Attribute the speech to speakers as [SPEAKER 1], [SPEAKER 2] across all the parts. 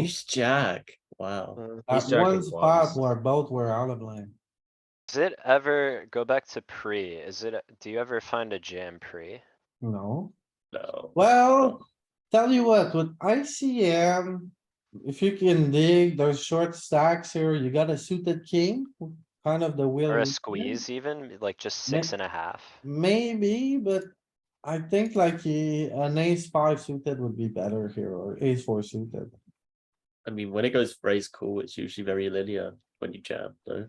[SPEAKER 1] He's jack. Wow.
[SPEAKER 2] Uh,
[SPEAKER 3] At
[SPEAKER 4] He's jack
[SPEAKER 3] one
[SPEAKER 4] of
[SPEAKER 3] spot
[SPEAKER 4] clubs.
[SPEAKER 3] where both were out of line.
[SPEAKER 2] Does it ever go back to pre? Is it, do you ever find a jam pre?
[SPEAKER 3] No,
[SPEAKER 1] No.
[SPEAKER 3] well, tell you what, with ICM. If you can dig those short stacks here, you got a suited king, kind of the wheel.
[SPEAKER 2] Or
[SPEAKER 3] in
[SPEAKER 2] a
[SPEAKER 3] hand.
[SPEAKER 2] squeeze even, like just
[SPEAKER 3] May-
[SPEAKER 2] six and a half?
[SPEAKER 3] Maybe, but I think like he, an ace five suited would be better here or ace four suited.
[SPEAKER 1] I mean, when it goes raise call, it's usually very linear when you jam, no?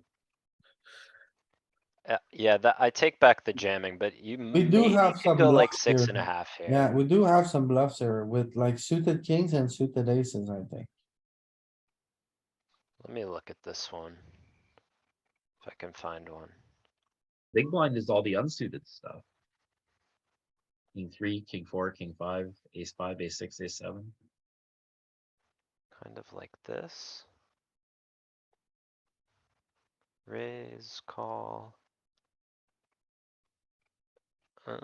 [SPEAKER 2] Uh, yeah, that, I take back the jamming, but you.
[SPEAKER 3] We do
[SPEAKER 2] may- you
[SPEAKER 3] have
[SPEAKER 2] could
[SPEAKER 3] some
[SPEAKER 2] Go like
[SPEAKER 3] bluff
[SPEAKER 2] six
[SPEAKER 3] here.
[SPEAKER 2] and a half here.
[SPEAKER 3] Yeah, we do have some bluffs here with like suited kings and suited aces, I think.
[SPEAKER 2] Let me look at this one. If I can find one.
[SPEAKER 4] Big blind is all the unsuited stuff. King three, king four, king five, ace five, ace six, ace seven.
[SPEAKER 2] Kind of like this. Raise, call. Uh,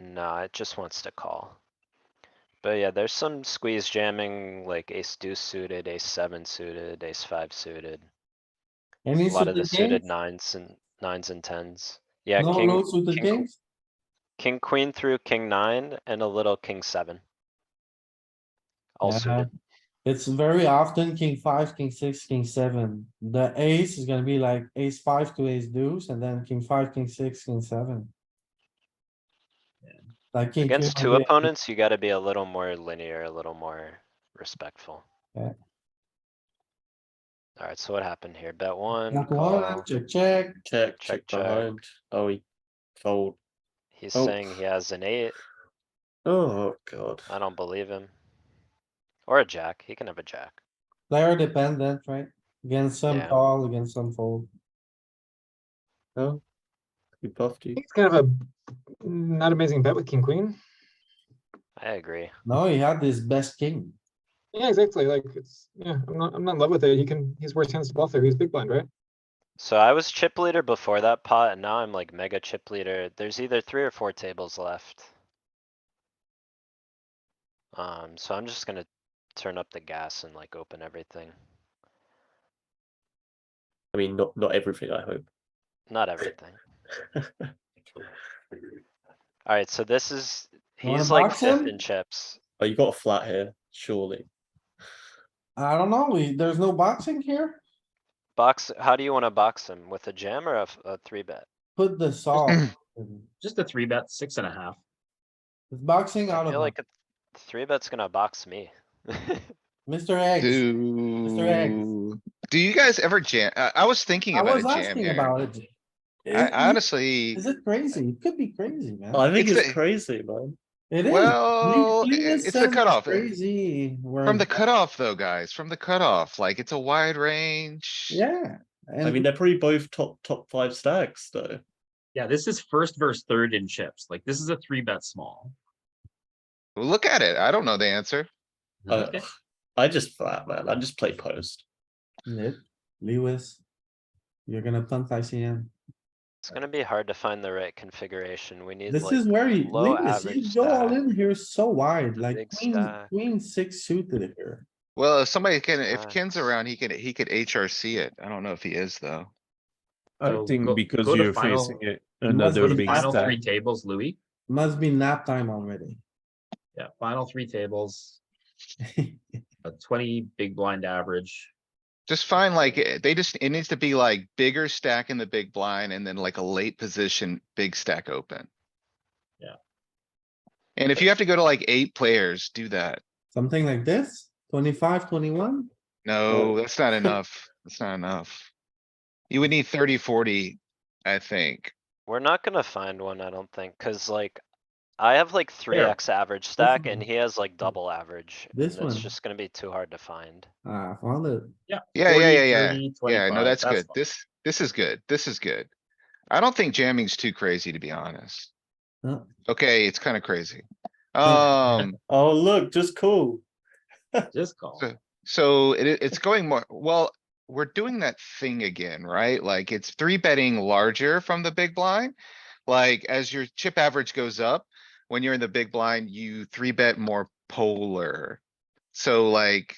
[SPEAKER 2] nah, it just wants to call. But yeah, there's some squeeze jamming, like ace deuce suited, ace seven suited, ace five suited. A
[SPEAKER 3] Any
[SPEAKER 2] lot of the
[SPEAKER 3] suited
[SPEAKER 2] suited
[SPEAKER 3] kings?
[SPEAKER 2] nines and nines and tens. Yeah,
[SPEAKER 3] No, no
[SPEAKER 2] king,
[SPEAKER 3] suited
[SPEAKER 2] king qu-
[SPEAKER 3] kings?
[SPEAKER 2] king, queen through king nine and a little king seven. All
[SPEAKER 3] Yeah.
[SPEAKER 2] suited.
[SPEAKER 3] Uh-huh. It's very often king five, king six, king seven. The ace is gonna be like ace five to ace deuce and then king five, king six, king seven.
[SPEAKER 4] Yeah.
[SPEAKER 3] Like king.
[SPEAKER 2] Against
[SPEAKER 3] queen
[SPEAKER 2] two
[SPEAKER 3] would be-
[SPEAKER 2] opponents, you gotta be a little more linear, a little more respectful.
[SPEAKER 3] Yeah.
[SPEAKER 2] Alright, so what happened here? Bet one, oh,
[SPEAKER 3] Not one,
[SPEAKER 2] call.
[SPEAKER 3] check, check.
[SPEAKER 1] Check,
[SPEAKER 2] Check,
[SPEAKER 1] check
[SPEAKER 2] check.
[SPEAKER 1] behind. Oh, he fold.
[SPEAKER 2] He's
[SPEAKER 1] Oh.
[SPEAKER 2] saying he has an eight.
[SPEAKER 1] Oh, God.
[SPEAKER 2] I don't believe him. Or a jack. He can have a jack.
[SPEAKER 3] Player dependent, right? Against some
[SPEAKER 2] Yeah.
[SPEAKER 3] call, against some fold.
[SPEAKER 1] Oh. He buffed you.
[SPEAKER 5] think it's kind of a not amazing bet with king queen.
[SPEAKER 2] I agree.
[SPEAKER 3] No, he had this best king.
[SPEAKER 5] Yeah, exactly. Like it's yeah, I'm not I'm not in love with it. He can he's worse hands to bluff there. He's big blind, right?
[SPEAKER 2] So I was chip leader before that pot and now I'm like mega chip leader. There's either three or four tables left. Um, so I'm just gonna turn up the gas and like open everything.
[SPEAKER 1] I mean, not, not everything, I hope.
[SPEAKER 2] Not everything. Alright, so this is,
[SPEAKER 3] You wanna
[SPEAKER 2] he's like
[SPEAKER 3] box
[SPEAKER 2] fifth
[SPEAKER 3] him?
[SPEAKER 2] in chips.
[SPEAKER 1] Oh, you got a flat here, surely.
[SPEAKER 3] I don't know, we- there's no boxing here.
[SPEAKER 2] Box, how do you wanna box him? With a jam or a, f- a three bet?
[SPEAKER 3] Put the solve. It's
[SPEAKER 4] Just a three bet, six and a half.
[SPEAKER 3] boxing out
[SPEAKER 2] I
[SPEAKER 3] of
[SPEAKER 2] feel
[SPEAKER 3] it.
[SPEAKER 2] like a three bet's gonna box me.
[SPEAKER 3] Mr. X.
[SPEAKER 6] Do, do you guys ever jam? I, I was thinking
[SPEAKER 3] I
[SPEAKER 6] about
[SPEAKER 3] was
[SPEAKER 6] a jam
[SPEAKER 3] asking
[SPEAKER 6] here.
[SPEAKER 3] about it.
[SPEAKER 6] I
[SPEAKER 3] Is-
[SPEAKER 6] honestly,
[SPEAKER 3] Is it crazy? It could be crazy, man.
[SPEAKER 1] I think
[SPEAKER 6] It's
[SPEAKER 1] it's
[SPEAKER 6] a-
[SPEAKER 1] crazy, man.
[SPEAKER 3] It is.
[SPEAKER 6] well,
[SPEAKER 3] Lee- Lee
[SPEAKER 6] it-
[SPEAKER 3] is
[SPEAKER 6] it's the
[SPEAKER 3] sending
[SPEAKER 6] cutoff.
[SPEAKER 3] Crazy.
[SPEAKER 6] From the cutoff though, guys, from the cutoff, like it's a wide range.
[SPEAKER 3] Yeah.
[SPEAKER 1] I mean,
[SPEAKER 3] And
[SPEAKER 1] they're probably both top, top five stacks, though.
[SPEAKER 4] Yeah, this is first versus third in chips. Like this is a three bet small.
[SPEAKER 6] Well, Look at it. I don't know the answer.
[SPEAKER 1] Uh,
[SPEAKER 4] Okay.
[SPEAKER 1] I just flat, man. I just play post.
[SPEAKER 3] Nick, Lewis, you're gonna punt ICM.
[SPEAKER 2] It's gonna be hard to find the right configuration. We need
[SPEAKER 3] This is
[SPEAKER 2] like
[SPEAKER 3] where you,
[SPEAKER 2] low
[SPEAKER 3] Lewis, you
[SPEAKER 2] average
[SPEAKER 3] go all
[SPEAKER 2] stack.
[SPEAKER 3] in here so wide, like
[SPEAKER 2] Big
[SPEAKER 3] queen,
[SPEAKER 2] stack.
[SPEAKER 3] queen six suited here.
[SPEAKER 6] Well, if somebody can, if Ken's
[SPEAKER 2] Nice.
[SPEAKER 6] around, he can, he could HRC it. I don't know if he is though.
[SPEAKER 7] I
[SPEAKER 4] So go-
[SPEAKER 7] think because
[SPEAKER 4] go to
[SPEAKER 7] you're
[SPEAKER 4] final-
[SPEAKER 7] facing it
[SPEAKER 1] Uh,
[SPEAKER 3] must
[SPEAKER 7] another
[SPEAKER 3] be
[SPEAKER 4] The
[SPEAKER 7] big
[SPEAKER 4] final
[SPEAKER 7] stack.
[SPEAKER 4] three tables, Louis.
[SPEAKER 3] Must be nap time already.
[SPEAKER 4] Yeah, final three tables, a twenty big blind average.
[SPEAKER 6] Just find like, eh, they just, it needs to be like bigger stack in the big blind and then like a late position, big stack open.
[SPEAKER 4] Yeah.
[SPEAKER 6] And if you have to go to like eight players, do that.
[SPEAKER 3] Something like this, 25, 21.
[SPEAKER 6] No, that's not enough. That's not enough. You would need 30, 40, I think.
[SPEAKER 2] We're not gonna find one, I don't think, cuz like I have like three
[SPEAKER 4] Here.
[SPEAKER 2] X average stack and
[SPEAKER 3] one.
[SPEAKER 2] he has like double average. and
[SPEAKER 3] This
[SPEAKER 2] It's
[SPEAKER 3] one.
[SPEAKER 2] just gonna be too hard to find.
[SPEAKER 3] Ah, I found it.
[SPEAKER 6] Yeah, yeah,
[SPEAKER 4] 40,
[SPEAKER 6] yeah, yeah.
[SPEAKER 4] 30,
[SPEAKER 6] Yeah,
[SPEAKER 4] 25,
[SPEAKER 6] no, that's good.
[SPEAKER 4] fine.
[SPEAKER 6] This, this is good. This is good. I don't think jamming's too crazy, to be honest.
[SPEAKER 3] No.
[SPEAKER 6] Okay, it's kinda crazy. Um.
[SPEAKER 1] Oh, look, just cool.
[SPEAKER 4] Just call.
[SPEAKER 6] So- So it, i- it's going more, well, we're doing that thing again, right? Like it's three betting larger from the big blind. Like as your chip average goes up, when you're in the big blind, you three bet more polar. So like